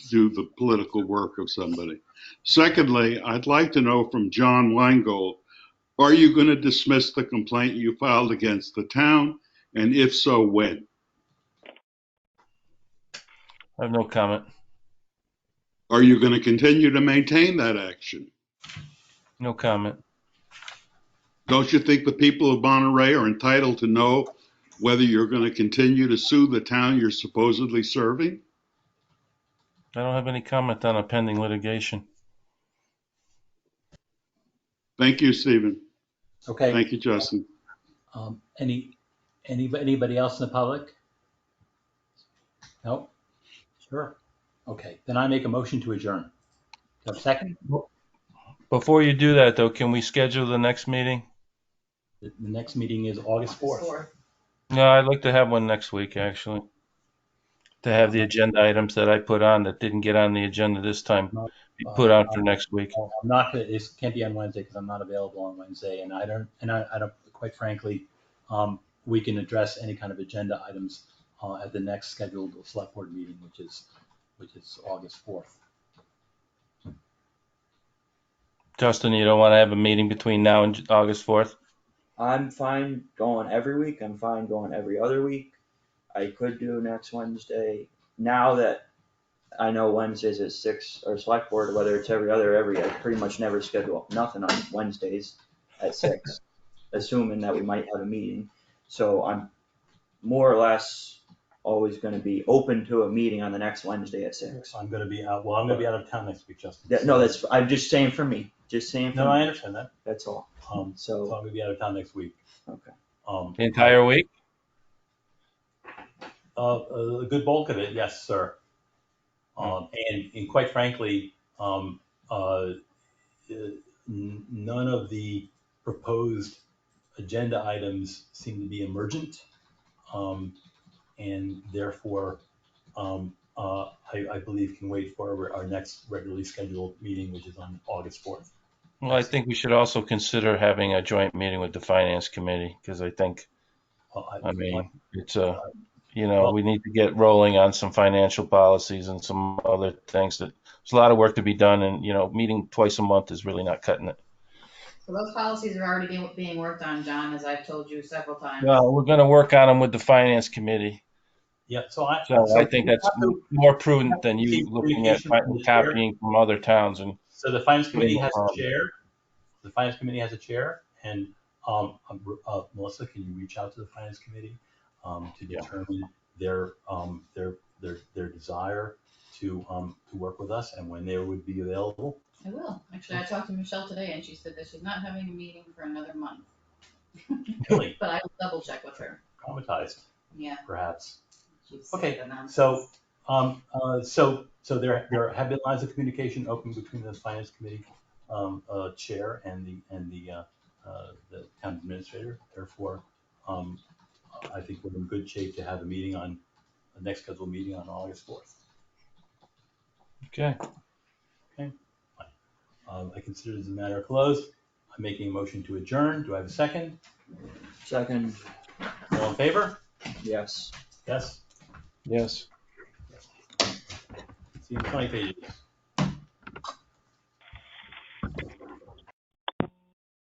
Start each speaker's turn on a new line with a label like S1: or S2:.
S1: do the political work of somebody. Secondly, I'd like to know from John Weingold, are you going to dismiss the complaint you filed against the town? And if so, when?
S2: I have no comment.
S1: Are you going to continue to maintain that action?
S2: No comment.
S1: Don't you think the people of Monterey are entitled to know whether you're going to continue to sue the town you're supposedly serving?
S2: I don't have any comment on a pending litigation.
S1: Thank you, Stephen.
S3: Okay,
S1: Thank you, Justin.
S3: um, any, any, anybody else in the public? No? Sure. Okay, then I make a motion to adjourn. Do I have a second?
S2: Before you do that, though, can we schedule the next meeting?
S3: The the next meeting is August fourth.
S2: No, I'd like to have one next week, actually. To have the agenda items that I put on that didn't get on the agenda this time be put on for next week.
S3: I'm not gonna, it can't be on Wednesday because I'm not available on Wednesday and I don't, and I, I don't, quite frankly, um, we can address any kind of agenda items, uh, at the next scheduled select board meeting, which is, which is August fourth.
S2: Justin, you don't want to have a meeting between now and August 4th?
S4: I'm fine going every week. I'm fine going every other week. I could do next Wednesday. Now that I know Wednesdays at six or select board, whether it's every other or every, I pretty much never schedule nothing on Wednesdays at six, assuming that we might have a meeting. So I'm more or less always gonna be open to a meeting on the next Wednesday at six.
S3: I'm gonna be out, well, I'm gonna be out of town next week, Justin.
S4: That- no, that's, I'm just saying for me, just saying
S3: No,
S4: for
S3: I
S4: me,
S3: understand that.
S4: that's all.
S3: Um, so
S4: So,
S3: I'm gonna be out of town next week.
S4: okay.
S3: Um,
S2: The entire week?
S3: uh, a good bulk of it, yes, sir. Um, and, and quite frankly, um, uh, n- none of the proposed agenda items seem to be emergent. Um, and therefore, um, uh, I, I believe can wait for our next regularly scheduled meeting, which is on August 4th.
S2: Well, I think we should also consider having a joint meeting with the finance committee because I think,
S3: Well,
S2: I mean, it's a, you know, we need to get rolling on some financial policies and some other things that, there's a lot of work to be done and, you know, meeting twice a month is really not cutting it.
S5: So those policies are already being, being worked on, John, as I've told you several times.
S2: Well, we're going to work on them with the finance committee.
S3: Yeah, so I.
S2: So I think that's
S3: so-
S2: more prudent than you looking at copying from other towns and
S3: So the finance committee
S2: Yeah.
S3: has a chair. The finance committee has a chair and, um, uh, Melissa, can you reach out to the finance committee? Um, to
S2: Yeah.
S3: determine their, um, their, their, their desire to, um, to work with us and when they would be available.
S5: I will. Actually, I talked to Michelle today and she said that she's not having a meeting for another month,
S3: Really
S5: but I will double check with her.
S3: traumatized,
S5: Yeah.
S3: perhaps.
S5: she said
S3: Okay,
S5: that I'm-
S3: so- Um, uh, so, so there, there have been lines of communication open between the finance committee, um, uh, chair and the, and the, uh, uh, the town administrator. Therefore, um, I think we're in good shape to have a meeting on, the next scheduled meeting on August fourth.
S2: Okay,
S3: Um, I consider this a matter closed. I'm making a motion to adjourn. Do I have a second?
S4: Second,
S3: All in favor?
S4: yes.
S3: Yes?
S2: yes.
S3: See you in twenty pages.